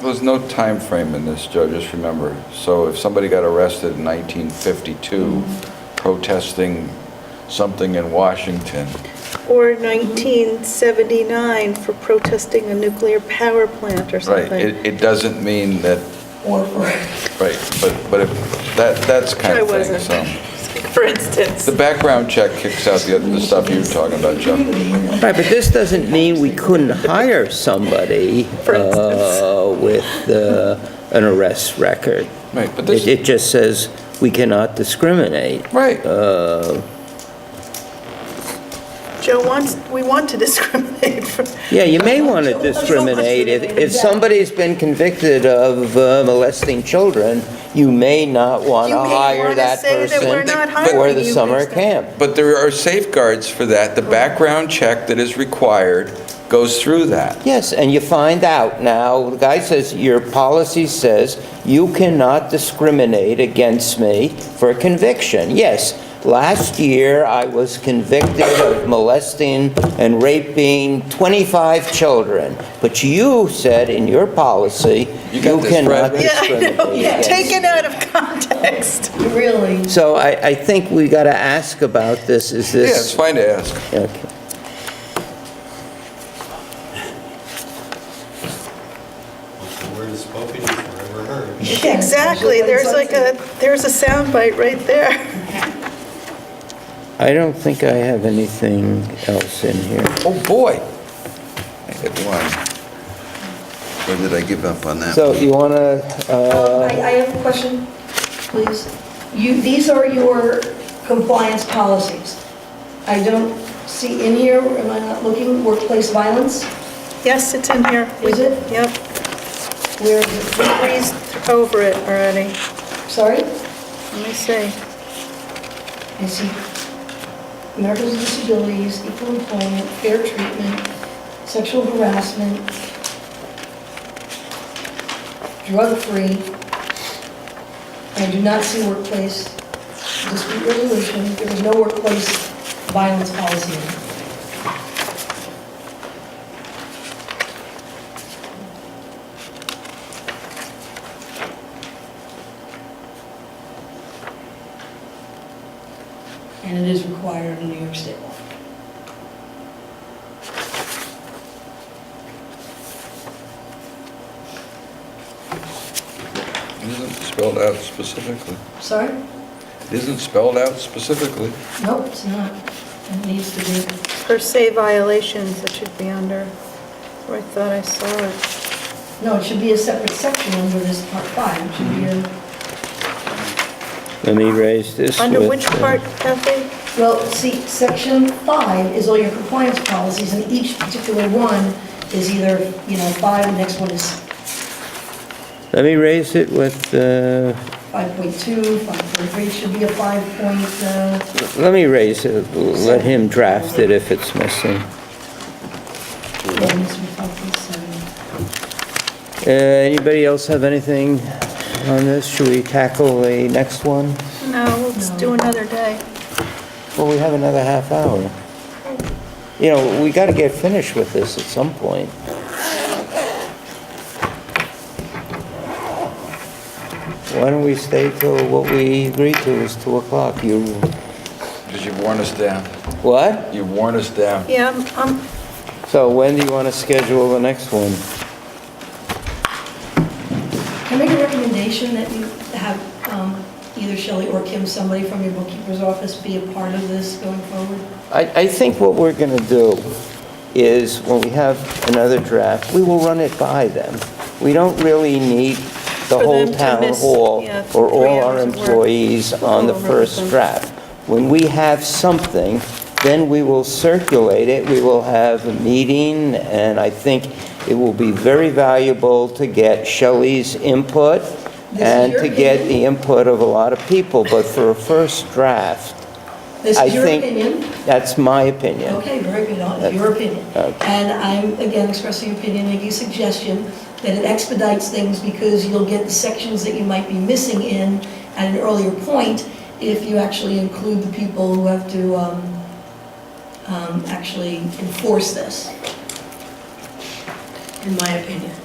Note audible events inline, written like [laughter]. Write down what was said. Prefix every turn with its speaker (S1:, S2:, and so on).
S1: there's no time frame in this, Joe, just remember. So if somebody got arrested in 1952 protesting something in Washington,
S2: Or 1979 for protesting a nuclear power plant or
S1: right,
S2: something.
S1: it, it doesn't mean that,
S3: Or for
S1: right, but, but if, that, that's kind
S2: I
S1: of thing,
S2: wasn't,
S1: so.
S2: [laughs] for instance.
S1: The background check kicks out the, other- the stuff you were talking about, Joe.
S4: Right, but this doesn't mean we couldn't hire somebody
S2: For instance.
S4: uh, with uh, an arrest record.
S1: Right, but
S4: It
S1: this,
S4: it just says we cannot discriminate.
S1: right,
S4: uh,
S2: Joe wants, we want to [laughs] discriminate for.
S4: Yeah, you may want to discriminate. If if somebody's been convicted of uh, molesting children, you may not want
S2: You
S4: to
S2: may
S4: hire
S2: wanna
S4: that
S2: say that we're
S4: person
S2: not
S4: for
S2: hiring
S4: the
S2: you
S4: summer
S2: based on-
S4: camp.
S1: but there are safeguards for that. The background check that is required goes through that.
S4: Yes, and you find out now, the guy says, your policy says you cannot discriminate against me for conviction. Yes, last year I was convicted of molesting and raping 25 children, but you said in your policy,
S1: You
S4: you
S1: got this,
S4: cannot
S1: Brad.
S2: Yeah, I
S4: discriminate
S2: know,
S4: against
S2: take it out of context.
S3: really
S4: So I, I think we got to ask about this, is
S1: Yeah, it's
S4: this...
S1: fine to ask.
S4: Okay.
S5: The word is spoken is forever heard.
S2: Exactly, there's like a, there's a soundbite right there. [laughs]
S4: I don't think I have anything else in here.
S1: Oh, boy. I hit one. Or did I give up on that?
S4: So you uh, want to,
S3: Um, I I have a question, please. You, these are your compliance policies. I don't see in here, am I not looking, workplace violence?
S2: Yes, it's in here. We-
S3: Is it?
S2: Yep,
S3: Where is
S2: we
S3: it?
S2: breezed over it already.
S3: Sorry?
S2: Let me see.
S3: I see Americans with Disabilities, Equal Employment, Fair Treatment, Sexual Harassment, Drug-Free. I do not see workplace dispute resolution. There is no workplace violence policy. And it is required in New York State law.
S1: It isn't spelled out specifically.
S3: Sorry?
S1: It isn't spelled out specifically.
S3: No, it's not. It needs to be.
S2: Per se violations, it should be under, where I thought I saw it.
S3: No, it should be a separate section under this part five. It should be a
S4: let me raise this
S2: Under
S4: with,
S2: which
S4: uh,
S2: part, Kathy?
S3: Well, see, section five is all your compliance policies, and each particular one is either, you know, five, the next one is
S4: Let me raise it with, uh,
S3: 5.2, 5.3, should be a five point, uh,
S4: let me raise it, let him draft it if it's missing.
S3: yeah, it needs to be 5.7.
S4: Uh, Anybody else have anything on this? Should we tackle the next one?
S2: No, let's do
S3: No.
S2: another day.
S4: Well, we have another half hour. You know, we got to get finished with this at some point. Why don't we stay till what we agreed to is 2 o'clock? You,
S1: Because you've worn us down.
S4: what?
S1: You've worn us down.
S2: Yeah, I'm- I'm,
S4: So when do you want to schedule the next one?
S3: Can I make a recommendation that you have um, either Shelley or Kim, somebody from your bookkeeper's office, be a part of this going forward?
S4: I, I think what we're going to do is, when we have another draft, we will run it by them. We don't really need the
S2: For
S4: whole
S2: them to
S4: town
S2: miss,
S4: hall
S2: yeah,
S4: or
S2: three
S4: all our
S2: hours of work.
S4: employees on the
S2: Over
S4: first
S2: them.
S4: draft. When we have something, then we will circulate it, we will have a meeting, and I think it will be very valuable to get Shelley's input
S3: This is
S4: and
S3: your
S4: to get
S3: opinion?
S4: the input of a lot of people, but for a first draft,
S3: This
S4: I
S3: is your
S4: think-
S3: opinion?
S4: that's my opinion.
S3: Okay, very good, Uh, your opinion.
S4: Okay.
S3: And I'm, again, expressing opinion, making a suggestion that it expedites things because you'll get the sections that you might be missing in at an earlier point if you actually include the people who have to um, um, actually enforce this, in my opinion.